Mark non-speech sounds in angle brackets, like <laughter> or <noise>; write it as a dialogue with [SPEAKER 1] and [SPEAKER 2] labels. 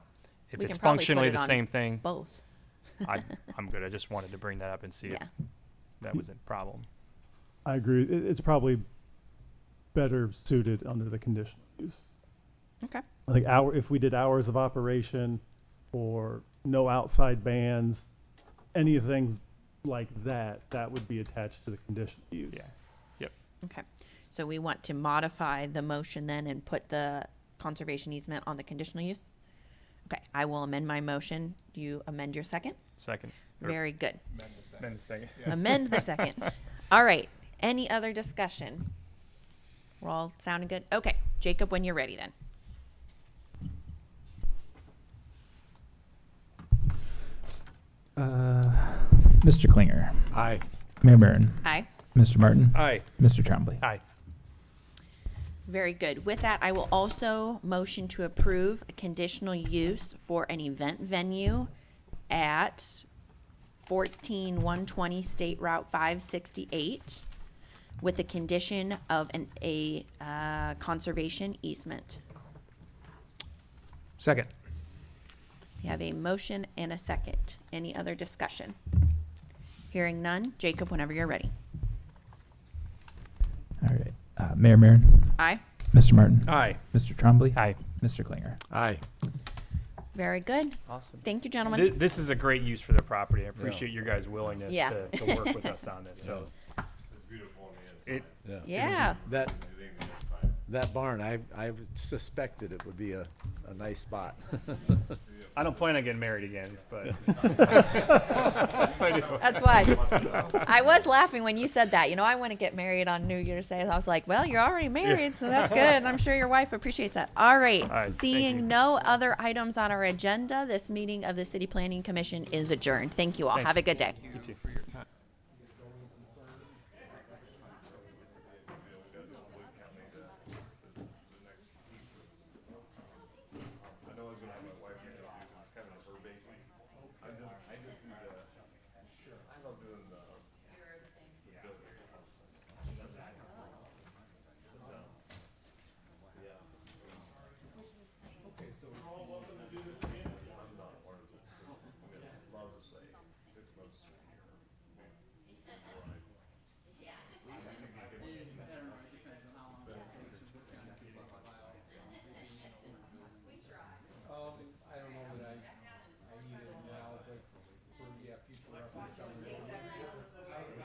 [SPEAKER 1] if
[SPEAKER 2] We
[SPEAKER 1] it's
[SPEAKER 2] can probably put
[SPEAKER 1] functionally
[SPEAKER 2] it
[SPEAKER 1] the
[SPEAKER 2] on
[SPEAKER 1] same
[SPEAKER 2] <laughs>
[SPEAKER 1] thing,
[SPEAKER 2] Both.
[SPEAKER 1] I, I'm good. I just wanted to bring that up and see
[SPEAKER 2] Yeah.
[SPEAKER 1] if that was a problem.
[SPEAKER 3] I agree. It, it's probably better suited under the conditional use.
[SPEAKER 2] Okay.
[SPEAKER 3] I think hour, if we did hours of operation or no outside bands, anything like that, that would be attached to the conditional use.
[SPEAKER 1] Yeah.
[SPEAKER 2] Okay. So we want to modify the motion then and put the conservation easement on the conditional use? Okay, I will amend my motion. You amend your second?
[SPEAKER 1] Second. Or-
[SPEAKER 2] Very good.
[SPEAKER 1] Then the second.
[SPEAKER 2] Amend the second. All right. Any other discussion? We're all sounding good? Okay. Jacob, when you're ready then.
[SPEAKER 4] Uh, Mr. Klinger,
[SPEAKER 5] Aye.
[SPEAKER 4] Mayor Barron,
[SPEAKER 2] Aye.
[SPEAKER 4] Mr. Martin,
[SPEAKER 5] Aye.
[SPEAKER 4] Mr. Trombley.
[SPEAKER 1] Aye.
[SPEAKER 2] Very good. With that, I will also motion to approve a conditional use for an event venue at fourteen one twenty State Route five sixty-eight with the condition of an, a, uh, conservation easement.
[SPEAKER 5] Second.
[SPEAKER 2] We have a motion and a second. Any other discussion? Hearing none. Jacob, whenever you're ready.
[SPEAKER 4] All right. Uh, Mayor Barron,
[SPEAKER 2] Aye.
[SPEAKER 4] Mr. Martin,
[SPEAKER 5] Aye.
[SPEAKER 4] Mr. Trombley,
[SPEAKER 1] Aye.
[SPEAKER 4] Mr. Klinger.
[SPEAKER 5] Aye.
[SPEAKER 2] Very good.
[SPEAKER 1] Awesome.
[SPEAKER 2] Thank you,
[SPEAKER 1] Th-
[SPEAKER 2] gentlemen.
[SPEAKER 1] This is a great use for the property. I appreciate your guys' willingness
[SPEAKER 2] Yeah.
[SPEAKER 1] to, to work with us on this,
[SPEAKER 6] Oh,
[SPEAKER 1] so. It,
[SPEAKER 2] Yeah.
[SPEAKER 6] That, that barn, I, I suspected it would be a, a nice spot.
[SPEAKER 1] I don't plan on getting married again, but
[SPEAKER 2] That's why I was laughing when you said that. You know, I want to get married on New Year's Day. I was like, well, you're already married, so that's good. And I'm sure your wife appreciates that. All right.
[SPEAKER 1] right, thank you.
[SPEAKER 2] Seeing no other items on our agenda, this meeting of the City Planning Commission is adjourned. Thank you all. Have a
[SPEAKER 1] Thanks.
[SPEAKER 2] good day.
[SPEAKER 1] you too.